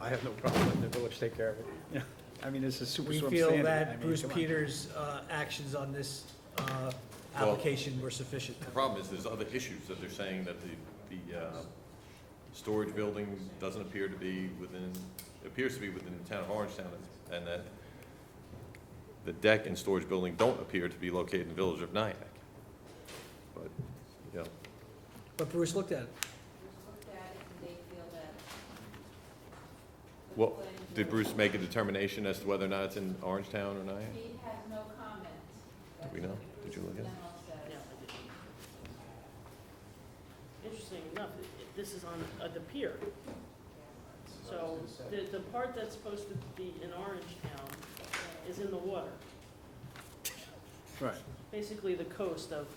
I have no problem letting the village take care of it. Yeah. I mean, this is super We swim feel standard. I that mean, Bruce come on. Peters' uh, actions on this uh, application were sufficient. The problem is, there's other issues that they're saying that the, the, uh, storage building doesn't appear to be within, appears to be within the town of Orange Town, and that the deck and storage building don't appear to be located in the village of Nyack. But, you know, But Bruce looked at it. looked at it and they feel that. well, did Bruce make a determination as to whether or not it's in Orange Town or Nyack? He has no comment. Do we know? Did you look at it? General says. No, I didn't. Interesting enough, it- it- this is on uh, the pier. So the, the part that's supposed to be in Orange Town is in the water, Right, basically the coast of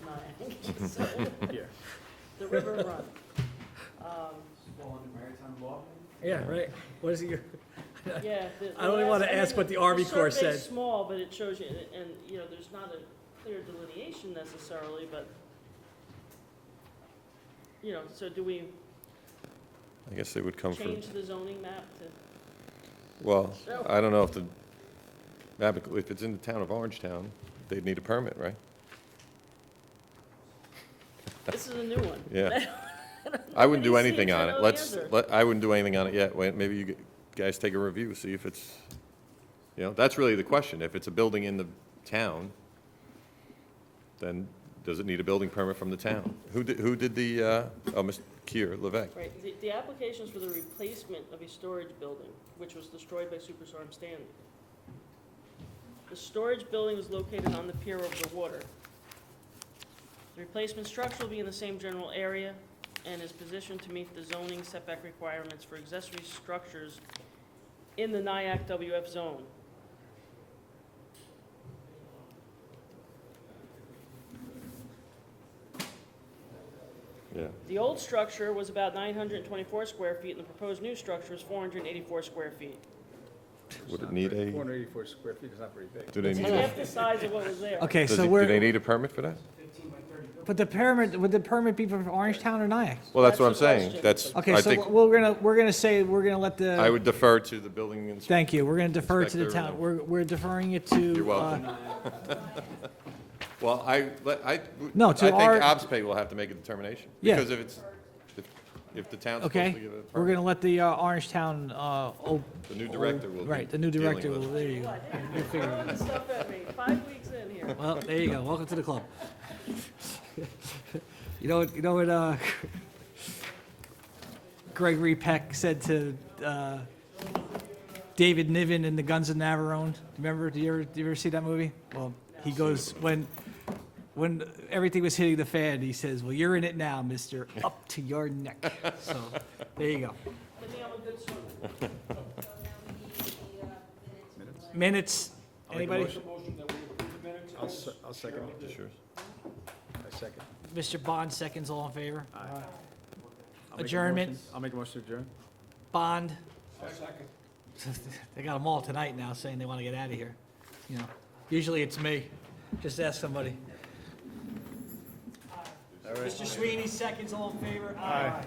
Nyack. So yeah. The river run. Um, Fall under maritime law? Yeah, right. What is it? your- Yeah. the- the I only last- wanna mean, ask what the Army Corps survey's said. small, but it shows you, and- and, you know, there's not a clear delineation necessarily, but, you know, so do we I guess they would come from, change the zoning map to? well, So- I don't know if the, map- if it's in the town of Orange Town, they'd need a permit, right? This is a new one. Yeah. I wouldn't do Nobody anything sees on it, it. no Let's, answer. let- I wouldn't do anything on it yet. Wait, maybe you g- guys take a review, see if it's, you know, that's really the question. If it's a building in the town, then does it need a building permit from the town? Who did, who did the, uh, oh, Mr. Kier, Levesque? Right, the, the application's for the replacement of a storage building, which was destroyed by Superstorm Sandy. The storage building is located on the pier over the water. The replacement structure will be in the same general area and is positioned to meet the zoning setback requirements for accessory structures in the NIAC WF zone. Yeah. The old structure was about nine hundred and twenty-four square feet, and the proposed new structure is four hundred and eighty-four square feet. It's Would it not need very- a- 484 square feet is not very big. Do they It's need, half the size of what was there. Okay, does so it- do they we're, need a permit for that? but the permit, would the permit be from Orange Town or Nyack? Well, that's what I'm That's the saying. question. That's, Okay, I so uh, think, we're gonna, we're gonna say, we're gonna let I the, would defer to the building inspector. thank you, we're gonna defer to the Inspector, town, uh, we're, we're deferring it to. You're welcome. uh, Well, I, let- I. No, I to think our- OBSPay will have to make a determination. Yeah. Because if it's, if, if the town's supposed to Okay, give it a we're permit, gonna let the uh, Orange Town, uh, o- the new director will be right, the new director, dealing will- with there you go. Well, I didn't- you're throwing the stuff at me, five weeks in here. Well, there you go. Welcome to the club. You know what, you know what, uh, Gregory Peck said to, uh, David Niven in the Guns of Navarone? Remember, do you ever, do you ever see that movie? Well, he goes, when, when everything was hitting the fan, he says, well, you're in it now, mister, up to your neck. So, there you go. But now I'm a good swimmer. So now we need the uh, minutes. from last- Minutes? Minutes, I'll make a anybody? motion. Motion that we approve the minutes I'll, as- se- I'll second it. it. Sure. I second. Mr. Bond seconds, all in favor? I'll make a Adjournment. motion- I'll make a motion to adjourn. Bond? I'll second. They got them all tonight now saying they want to get out of here, you know. Usually it's me. Just ask somebody. All right. Mr. Sweeney, seconds, all in favor? All right,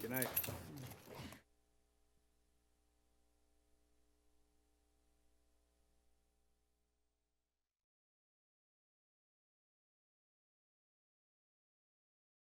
good night.